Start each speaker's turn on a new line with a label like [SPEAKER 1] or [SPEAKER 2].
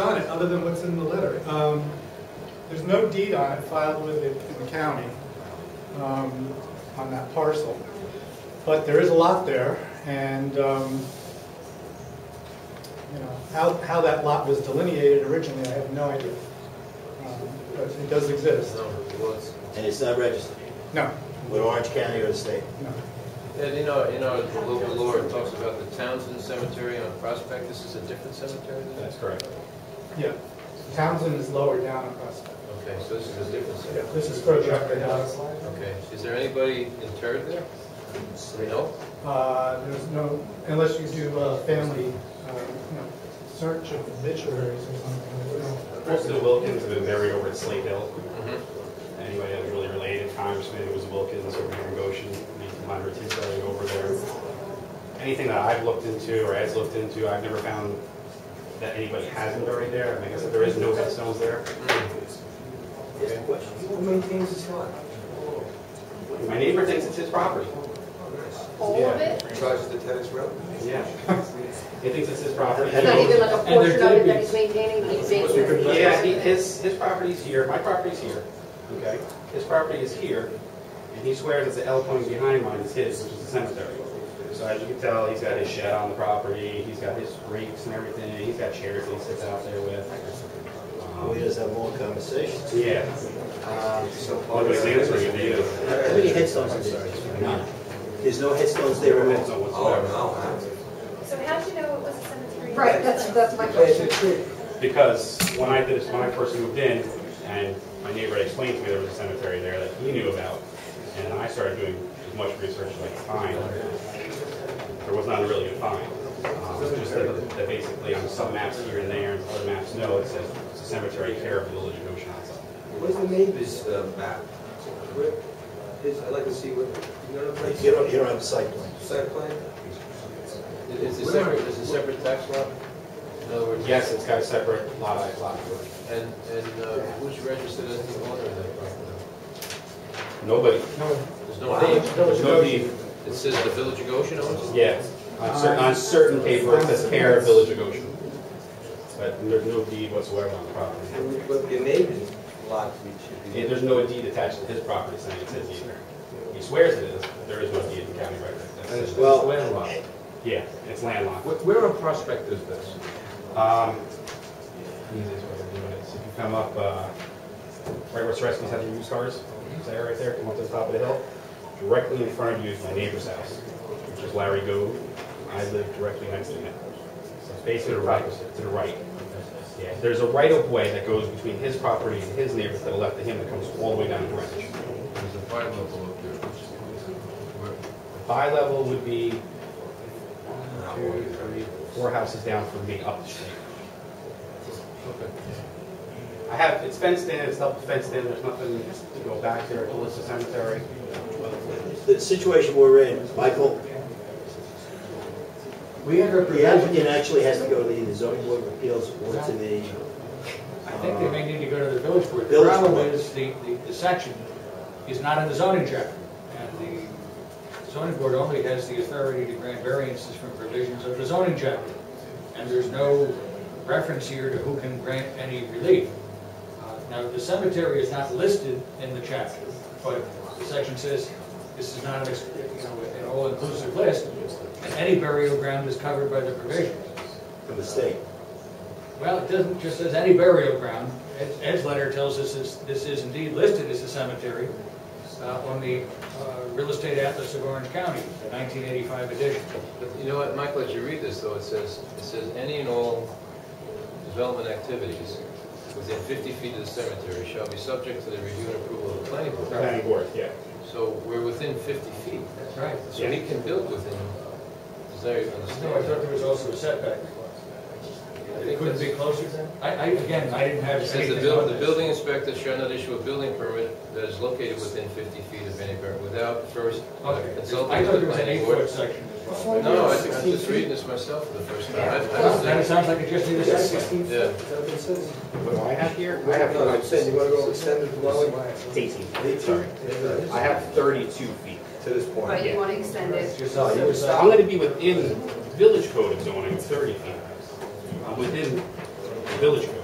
[SPEAKER 1] comment other than what's in the letter. Um, There's no deed on it filed with it in the county um, on that parcel. But there is a lot there, and, um, you know, how, how that lot was delineated originally, I have no idea. Um, But it does exist.
[SPEAKER 2] And it's not registered
[SPEAKER 1] No,
[SPEAKER 2] with Orange County or the state.
[SPEAKER 1] no.
[SPEAKER 3] And you know, you know, the local law it talks about the Townsend Cemetery on Prospect, this is a different cemetery than that?
[SPEAKER 4] That's correct.
[SPEAKER 1] Yeah. Townsend is lower down on Prospect.
[SPEAKER 3] Okay, so this is a different
[SPEAKER 1] Yeah,
[SPEAKER 3] cemetery.
[SPEAKER 1] This is further up and down.
[SPEAKER 3] Okay, is there anybody interred there? No?
[SPEAKER 1] Uh, There's no, unless you do a family, uh, you know, search of obituaries or something. there's
[SPEAKER 4] Most
[SPEAKER 1] no-
[SPEAKER 4] of the Wilkins have been buried over at Slate Hill.
[SPEAKER 3] Mhm.
[SPEAKER 4] Anybody that was really related, Congressman, it was Wilkins over here in Goshen, the minor buried over there. Anything that I've looked into or has looked into, I've never found that anybody hasn't buried there. I mean, I guess if there is no headstones there.
[SPEAKER 2] Here's the question. Who maintains this lot?
[SPEAKER 4] My neighbor thinks it's his property.
[SPEAKER 5] All of it?
[SPEAKER 6] Charge the tennis road.
[SPEAKER 4] Yeah. He thinks it's his property.
[SPEAKER 5] It's not even like a
[SPEAKER 4] And there
[SPEAKER 5] portion of it
[SPEAKER 4] could
[SPEAKER 5] that
[SPEAKER 4] be-
[SPEAKER 5] he's maintaining, he's maintaining.
[SPEAKER 4] Yeah, he- his, his property's here, my property's here, okay? His property is here, and he swears it's the L point behind mine is his, which is the cemetery. So as you can tell, he's got his shed on the property, he's got his rakes and everything, he's got chairs that he sits out there with.
[SPEAKER 2] We
[SPEAKER 4] Um,
[SPEAKER 2] just have more conversations.
[SPEAKER 4] Yeah.
[SPEAKER 2] Um, so-
[SPEAKER 4] Nobody's answering it either.
[SPEAKER 2] How many headstones are there? None. There's no headstones there at all.
[SPEAKER 4] So
[SPEAKER 6] Oh,
[SPEAKER 4] whatsoever.
[SPEAKER 6] no, huh?
[SPEAKER 7] So how'd you know it was a cemetery?
[SPEAKER 5] Right, that's, that's my question.
[SPEAKER 4] Because when I did, when I first moved in, and my neighbor had explained to me there was a cemetery there that he knew about, and I started doing as much research as I could find, there was not a really good find. Um, it's Just that that basically on some maps here and there, and other maps no, it says it's a cemetery care of Village of Oceanside.
[SPEAKER 6] Where's the neighbor's uh, map? Where, his, I'd like to see what, you know what I'm
[SPEAKER 2] You
[SPEAKER 6] saying?
[SPEAKER 2] don't, you don't have a site plan.
[SPEAKER 6] Site plan?
[SPEAKER 3] It's a separate, it's a separate tax lot? In other words,
[SPEAKER 4] Yes, it's got a separate lot, I lot.
[SPEAKER 3] And, and uh, who's registered as the owner of that property?
[SPEAKER 4] Nobody,
[SPEAKER 3] There's no name,
[SPEAKER 4] there's no deed.
[SPEAKER 3] it says the Village of Goshen owns it?
[SPEAKER 4] Yeah, on certain, on certain paper, it says care of Village of Goshen. But there's no deed whatsoever on the property.
[SPEAKER 6] And But the neighbor's lot, we should
[SPEAKER 4] Yeah,
[SPEAKER 6] be.
[SPEAKER 4] There's no deed attached to his property saying it's his either. He swears it is, but there is no deed in county record. That's it.
[SPEAKER 2] Well-
[SPEAKER 8] landlocked.
[SPEAKER 4] Yeah, it's landlocked.
[SPEAKER 8] Wh- Where on Prospect is this?
[SPEAKER 4] Um, easiest way to do it is if you come up, uh, right where Soreski's had the used cars, is that right there, come up to the top of the hill? Directly in front of you is my neighbor's house, which is Larry Gove. I live directly next to him. So it's basically to the right, to the right. Yeah, there's a right of way that goes between his property and his neighbor's to the left of him that comes all the way down to Greenwich.
[SPEAKER 8] There's a fire level up there. Where-
[SPEAKER 4] Bi-level would be one, two, three, four houses down from me up the street.
[SPEAKER 8] okay.
[SPEAKER 4] I have, it's fenced in, it's double fenced in, there's nothing to go back there, to the cemetery.
[SPEAKER 2] The situation we're in, Michael,
[SPEAKER 1] We have a
[SPEAKER 2] the applicant actually has to go to the zoning board of appeals or to the,
[SPEAKER 9] I think they may need to go to the village board. The
[SPEAKER 2] Village
[SPEAKER 9] problem
[SPEAKER 2] board.
[SPEAKER 9] is, the, the- the section is not in the zoning chapter, and the zoning board only has the authority to grant variances from provisions of the zoning chapter, and there's no reference here to who can grant any relief. Uh, Now, the cemetery is not listed in the chapter, but the section says, this is not, an ex- you know, an all-inclusive list, and any burial ground is covered by the provisions.
[SPEAKER 2] from the state.
[SPEAKER 9] Well, it doesn't, just says any burial ground. Ed's- Ed's letter tells us this, this is indeed listed as a cemetery uh, on the uh, Real Estate Atlas of Orange County, the 1985 edition.
[SPEAKER 3] But You know what, Michael, as you read this though, it says, it says any and all development activities within 50 feet of the cemetery shall be subject to the review and approval of the planning board.
[SPEAKER 4] Planning board, yeah.
[SPEAKER 3] So we're within 50 feet,
[SPEAKER 9] That's right.
[SPEAKER 3] so he can build within, is there, you
[SPEAKER 9] No, I thought
[SPEAKER 3] understand?
[SPEAKER 9] there was also a setback. It couldn't be closer then? I, I, again, I didn't have
[SPEAKER 3] It says
[SPEAKER 9] anything
[SPEAKER 3] the
[SPEAKER 9] on
[SPEAKER 3] buil- the
[SPEAKER 9] this.
[SPEAKER 3] building inspector shall not issue a building permit that is located within 50 feet of any burial without first
[SPEAKER 9] Okay.
[SPEAKER 3] consulting
[SPEAKER 9] I
[SPEAKER 3] with
[SPEAKER 9] thought
[SPEAKER 3] the
[SPEAKER 9] there was an
[SPEAKER 3] planning board.
[SPEAKER 9] eight-foot section as well.
[SPEAKER 3] No, no, I think I'm just reading this myself for the first time. I- I don't
[SPEAKER 9] Then it
[SPEAKER 3] think-
[SPEAKER 9] sounds like it just needs a setback.
[SPEAKER 3] Yeah.
[SPEAKER 4] What do I have here? I
[SPEAKER 6] No, I'm
[SPEAKER 4] have
[SPEAKER 6] saying, you wanna go extended dwelling?
[SPEAKER 4] eighteen, sorry. I
[SPEAKER 6] To
[SPEAKER 4] have thirty-two feet.
[SPEAKER 6] this
[SPEAKER 5] But
[SPEAKER 6] point.
[SPEAKER 5] you want to extend it.
[SPEAKER 9] Just
[SPEAKER 4] So
[SPEAKER 9] on the other
[SPEAKER 4] I'm
[SPEAKER 9] side.
[SPEAKER 4] gonna be within village code of zoning, of thirty feet. I'm within the village code.